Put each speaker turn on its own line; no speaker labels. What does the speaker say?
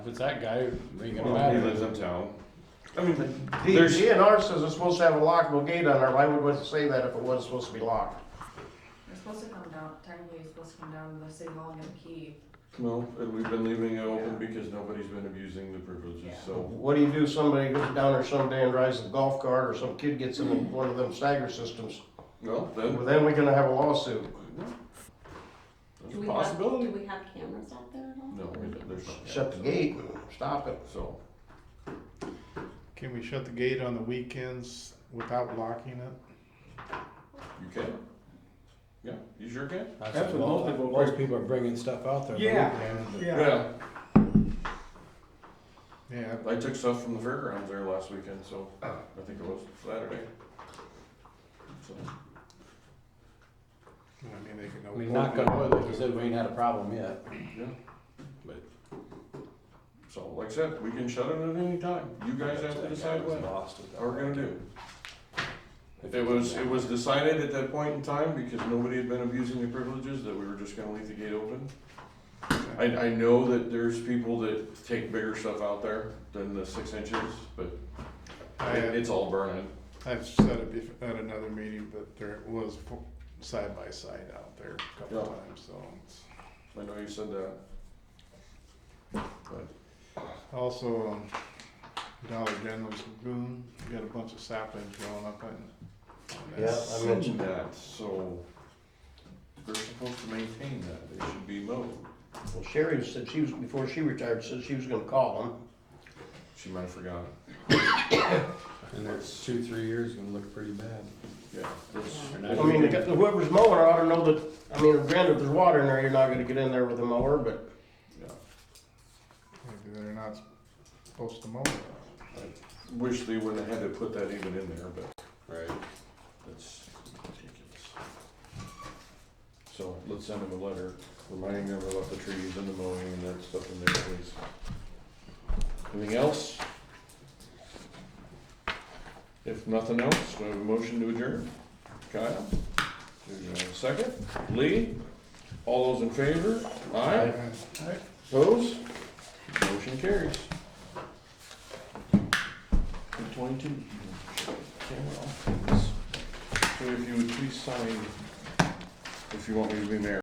If it's that guy, it ain't gonna
Well, he
matter.
lives in town. I mean,
The
There's-
DNR says it's supposed to have a lockable gate on there, why would we say that if it wasn't supposed to be locked?
You're supposed to come down, technically you're supposed to come down to the city hall and get a key.
no, and we've been leaving it open
Yeah.
because nobody's been abusing the privileges,
Yeah.
so.
What do you do, if somebody goes down there someday and drives a golf cart, or some kid gets in one of them stagger systems?
Well, then,
Well, then we're gonna have a lawsuit.
there's
Do
a
we have, do
possibility.
we have cameras out there at all?
No, we don't- there's not.
Shut the gate and stop it.
So,
Can we shut the gate on the weekends without locking it?
you can. Yeah, you sure can.
That's
That's
what
what most
most,
people-
most people are bringing stuff out there.
Yeah.
Yeah,
Yeah,
I took stuff from the fairgrounds there last weekend, so I think it was Saturday. So,
I mean, they can.
I mean, knock on wood, like you said, we ain't had a problem yet.
yeah. But, so like I said, we can shut it at any time. You guys have to decide what we're gonna do. It was, it was decided at that point in time, because nobody had been abusing the privileges, that we were just gonna leave the gate open. I, I know that there's people that take bigger stuff out there than the six inches, but
Oh,
I
it-
had,
it's all burning.
I've said it before at another meeting, but there was fo- side by side out there a couple
Yeah.
times, so. it's-
I know you said that. But,
Also, um, Dollar General's lagoon, we got a bunch of saplings growing up on. on that.
Yeah, I
Seen
mentioned-
that, so they're supposed to maintain that, they should be mowed.
Well, Sherry said she was, before she retired, said she was gonna call him.
She might have forgotten,
And that's two, three years, gonna look pretty bad.
yeah, that's-
I
I mean, whoever's mowing ought to know that, I mean, granted, if there's water in there, you're not gonna get in there with a mower, but
yeah.
Maybe they're not supposed to mow it.
Wish they wouldn't have had to put that even in there, but
Right.
That's ridiculous. So let's send them a letter reminding them about the trees and the mowing and that stuff in there, please. Anything else? If nothing else, we have a motion to adjourn. Kyle? There's a second. Lee? All those in favor? Aye. Opposed? Motion carries. Twenty-two. Camera off. So if you would please sign, if you want me to be mayor.